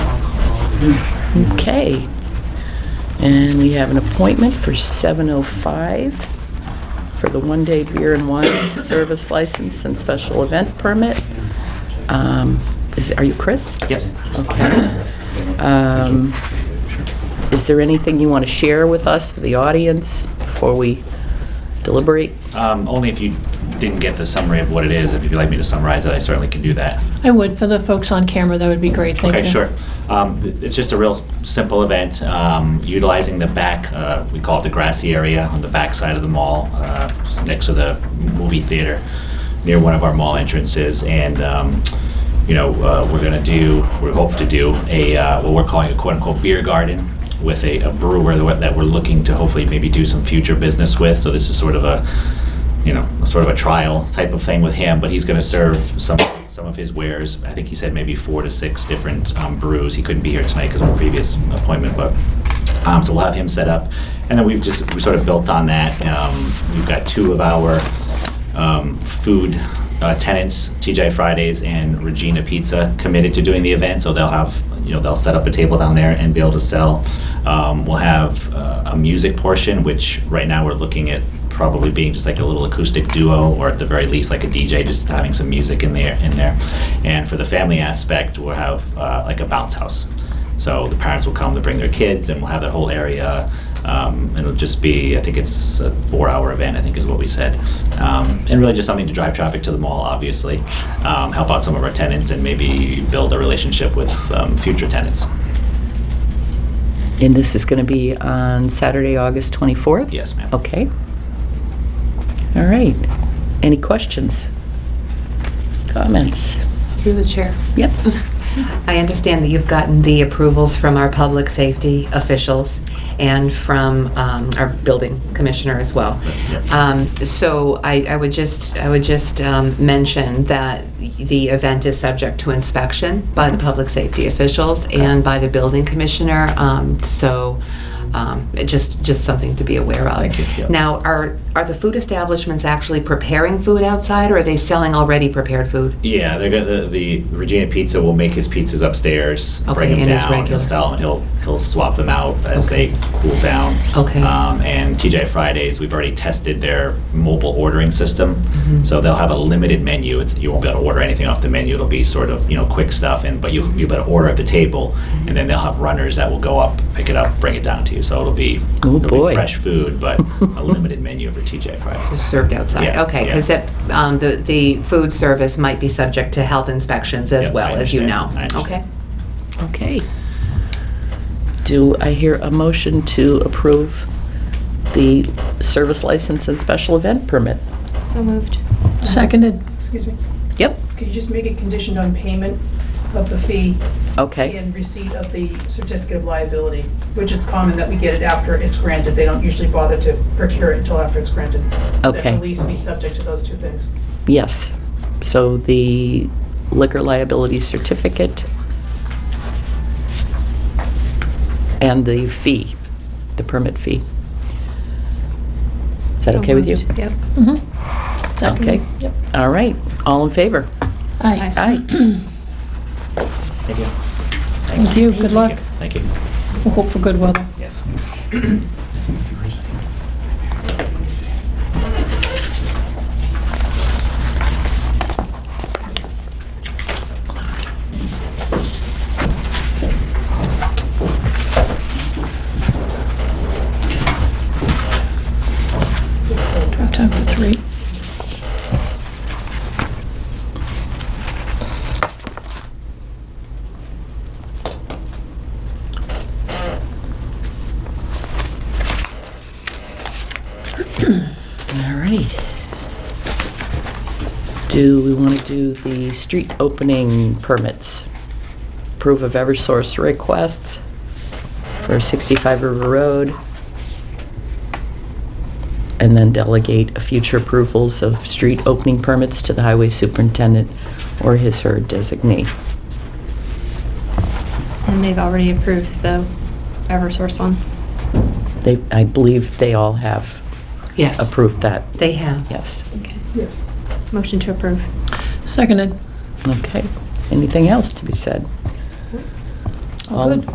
Okay. And we have an appointment for 7:05 for the one-day beer and wine service license and special event permit. Um, Is, are you Chris? Yes. Okay. Um, Is there anything you want to share with us, the audience, before we deliberate? Um, only if you didn't get the summary of what it is, if you'd like me to summarize it, I certainly can do that. I would, for the folks on camera, that would be great, thank you. Okay, sure. Um, th- It's just a real simple event, um, utilizing the back, uh, we call it the grassy area on the back side of the mall, uh, just next to the movie theater, near one of our mall entrances. And, um, you know, uh, we're going to do, we hope to do a, uh, what we're calling a quote-unquote beer garden with a a brewer that we're- that we're looking to hopefully maybe do some future business with. So this is sort of a, you know, sort of a trial type of thing with him, but he's going to serve some some of his wares. I think he said maybe four to six different um, brews. He couldn't be here tonight because of a previous appointment, but um, so we'll have him set up, and then we've just we sort of built on that. Um, we've got two of our um, food uh, tenants, TJ Fridays and Regina Pizza, committed to doing the event, so they'll have you know they'll set up a table down there and be able to sell. Um, we'll have uh, a music portion, which right now we're looking at probably being just like a little acoustic duo or at the very least like a DJ just having some music in there in there and for the family aspect we'll have uh, like a bounce house so the parents will come to bring their kids and we'll have that whole area um, and it'll just be I think it's a four hour event I think is what we said um, and really just something to drive traffic to the mall obviously um, help out some of our tenants and maybe build a relationship with um, future tenants And this is going to be on Saturday, August 24th? yes ma'am Okay. All right. Any questions? Comments? Through the chair. Yep. I understand that you've gotten the approvals from our public safety officials and from um, our building commissioner as well. That's- yeah. Um, So I I would just, I would just um, mention that the event is subject to inspection by the public safety officials and by the building commissioner. Um, So um, it just, just something to be aware of. Thank you, yeah. Now, are, are the food establishments actually preparing food outside or are they selling already prepared food? Yeah, they're gonna, the, the Regina Pizza will make his pizzas upstairs, Okay, bring them and his down, he'll regular. sell them, he'll, he'll swap them out as Okay. they cool down. Okay. Um, and TJ Fridays, we've already tested their mobile ordering system, so they'll have a limited menu. It's, you won't be able to order anything off the menu. It'll be sort of you know quick stuff, and but you'll you'll be able to order at the table, and then they'll have runners that will go up, pick it up, bring it down to you. So it'll be Oh, it'll boy. be fresh food, but a limited menu for TJ Fridays. served outside, Yeah, yeah. okay, because it, um, the, the food service might be subject to health inspections as Yep, well, I as you know, understand. I okay? understand. Okay. Do I hear a motion to approve the service license and special event permit? So moved. Seconded. Excuse me, Yep. could you just make it conditioned on payment of the fee Okay. and receipt of the certificate of liability, which it's common that we get it after it's granted. They don't usually bother to procure it until after it's granted. Okay. That release be subject to those two things. Yes. So the liquor liability certificate and the fee, the permit fee. Is that So okay with you? moved. Yep. Mm-hmm. Okay. Yep. All right. All in favor? Aye. Aye. Thank you. Thank you, good luck. Thank you. We'll hope for good weather. Yes. Drop time for three. All right. Do we want to do the street opening permits? Approve of Eversource requests for 65 River Road? And then delegate future approvals of street opening permits to the highway superintendent or his or her designee. And they've already approved the Eversource one. They, I believe they all have Yes. approved that, They have. yes. Okay. Yes. Motion to approve. Seconded. Okay. Anything else to be said? All good.